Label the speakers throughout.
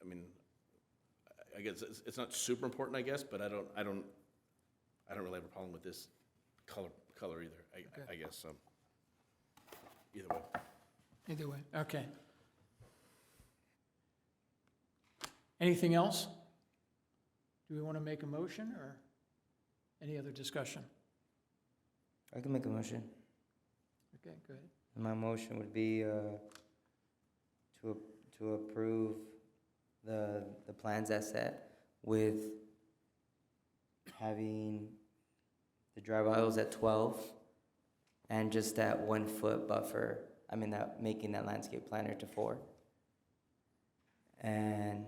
Speaker 1: I mean, I- I guess it's, it's not super important, I guess, but I don't, I don't, I don't really have a problem with this color, color either, I- I, I guess, so. Either way.
Speaker 2: Either way, okay. Anything else? Do we want to make a motion or any other discussion?
Speaker 3: I can make a motion.
Speaker 2: Okay, go ahead.
Speaker 3: My motion would be uh, to, ap- to approve the, the plans as set with having the drive aisles at twelve and just that one foot buffer, I mean, that, making that landscape planner to four. And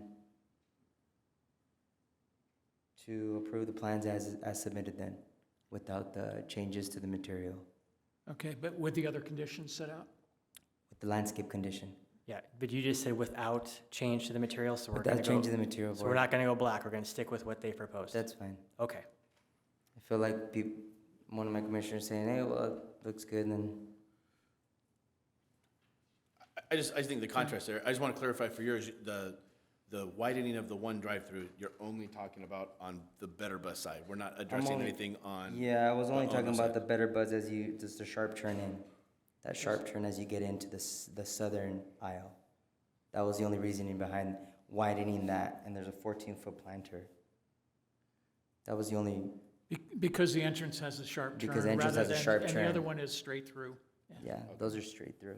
Speaker 3: to approve the plans as, as submitted then, without the changes to the material,
Speaker 2: Okay, but with the other conditions set out?
Speaker 3: with the landscape condition.
Speaker 4: Yeah, but you just said without change to the material, so we're gonna
Speaker 3: Without
Speaker 4: go,
Speaker 3: changing the material
Speaker 4: so we're
Speaker 3: board,
Speaker 4: not gonna go black, we're gonna stick with what they proposed.
Speaker 3: that's fine.
Speaker 4: Okay,
Speaker 3: I feel like peop one of my commissioners saying, hey, well, it looks good, and then,
Speaker 1: I- I just, I just think the contrast there, I just want to clarify for yours, the, the widening of the one drive-through, you're only talking about on the better bus side. We're not addressing
Speaker 3: only-
Speaker 1: anything on.
Speaker 3: yeah, I was only
Speaker 1: on
Speaker 3: talking
Speaker 1: the side.
Speaker 3: about the better buzz as you, just the sharp turn in. That sharp turn as you get into the, s- the southern aisle. That was the only reasoning behind widening that, and there's a fourteen foot planter. That was the only,
Speaker 2: Be- Because the entrance has a sharp turn.
Speaker 3: Because entrance
Speaker 2: rather
Speaker 3: has a
Speaker 2: than-
Speaker 3: sharp
Speaker 2: And the
Speaker 3: turn.
Speaker 2: other one is straight through.
Speaker 3: yeah, those are straight through.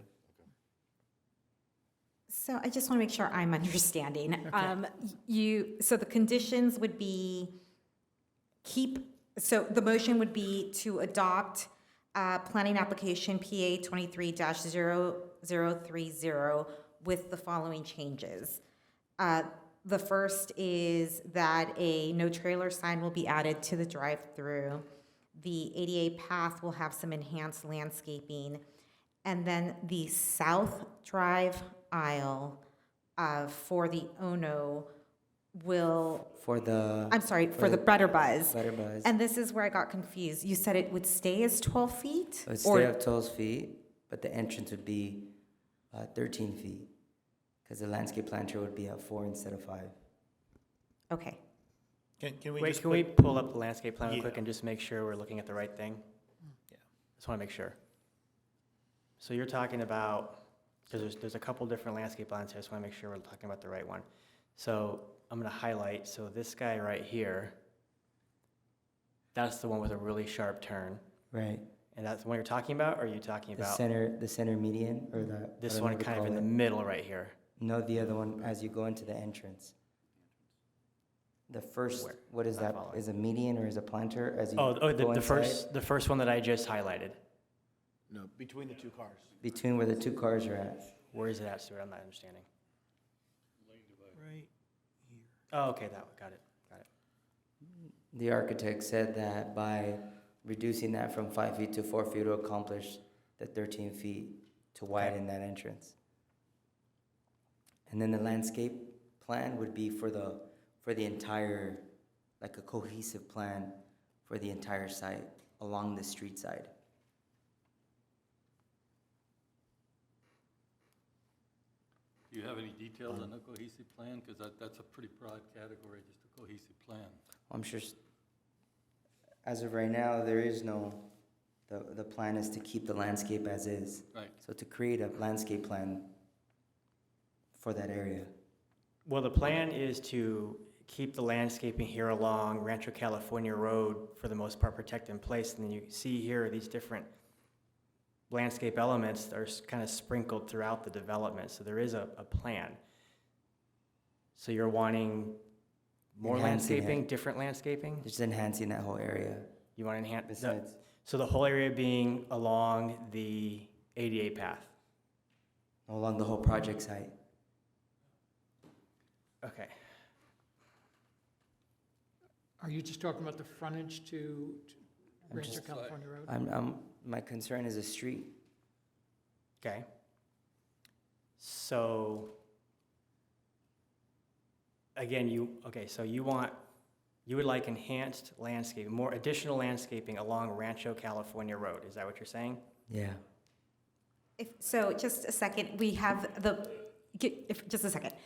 Speaker 5: So I just want to make sure I'm understanding. Um, You, so the conditions would be keep, so the motion would be to adopt uh, planning application PA 23-0030 with the following changes. Uh, The first is that a no trailer sign will be added to the drive-through. The ADA path will have some enhanced landscaping. And then the south drive aisle uh, for the Ono will,
Speaker 3: For the
Speaker 5: I'm sorry, for the Butter Buzz.
Speaker 3: better buzz,
Speaker 5: And this is where I got confused. You said it would stay as 12 feet?
Speaker 3: it would
Speaker 5: or-
Speaker 3: stay up twelve feet, but the entrance would be, uh, thirteen feet. Cause the landscape planter would be at four instead of five.
Speaker 5: Okay,
Speaker 6: Can, can we
Speaker 4: wait,
Speaker 6: just
Speaker 4: can we
Speaker 6: put,
Speaker 4: pull up the landscape plan real quick
Speaker 6: Yeah.
Speaker 4: and just make sure we're looking at the right thing? Just wanna make sure. So you're talking about, cause there's, there's a couple different landscape plans here, I just wanna make sure we're talking about the right one. So I'm gonna highlight, so this guy right here, that's the one with a really sharp turn,
Speaker 3: Right.
Speaker 4: and that's the one you're talking about, or are you talking
Speaker 3: The
Speaker 4: about
Speaker 3: center, the center median or the. I
Speaker 4: this
Speaker 3: don't
Speaker 4: one
Speaker 3: know what
Speaker 4: kind
Speaker 3: you
Speaker 4: of in
Speaker 3: call
Speaker 4: the
Speaker 3: it.
Speaker 4: middle right here?
Speaker 3: No, the other one, as you go into the entrance. The first,
Speaker 4: Where?
Speaker 3: what is
Speaker 4: Not
Speaker 3: that?
Speaker 4: following.
Speaker 3: Is a median or is a planter as you?
Speaker 4: Oh, oh, the,
Speaker 3: go
Speaker 4: the
Speaker 3: inside?
Speaker 4: first, the first one that I just highlighted.
Speaker 1: No, between the two cars.
Speaker 3: Between where the two cars are at.
Speaker 4: Where is it at, Stuart? I'm not understanding.
Speaker 6: right,
Speaker 4: Oh, okay, that one, got it, got it.
Speaker 3: The architect said that by reducing that from five feet to four feet to accomplish the thirteen feet to widen that entrance. And then the landscape plan would be for the, for the entire, like a cohesive plan for the entire site along the street side.
Speaker 7: Do you have any details on a cohesive plan? Because that, that's a pretty broad category, just a cohesive plan.
Speaker 3: I'm sure, s- as of right now, there is no, the, the plan is to keep the landscape as is.
Speaker 7: Right.
Speaker 3: So to create a landscape plan for that area.
Speaker 4: Well, the plan is to keep the landscaping here along Rancho California Road for the most part protected in place. And then you see here these different landscape elements that are kind of sprinkled throughout the development. So there is a, a plan. So you're wanting more
Speaker 3: Enhancing it.
Speaker 4: landscaping, different landscaping?
Speaker 3: Just enhancing that whole area
Speaker 4: You want to enhance, the-
Speaker 3: besides,
Speaker 4: so the whole area being along the ADA path?
Speaker 3: along the whole project site.
Speaker 4: Okay.
Speaker 2: Are you just talking about the frontage to to
Speaker 3: I'm
Speaker 2: Rancho
Speaker 3: just-
Speaker 2: California Road?
Speaker 3: I'm, I'm, my concern is the street.
Speaker 4: Okay. So, again, you, okay, so you want, you would like enhanced landscaping, more additional landscaping along Rancho California Road, is that what you're saying?
Speaker 3: Yeah.
Speaker 5: if, so just a second, we have the, get- if, just a second.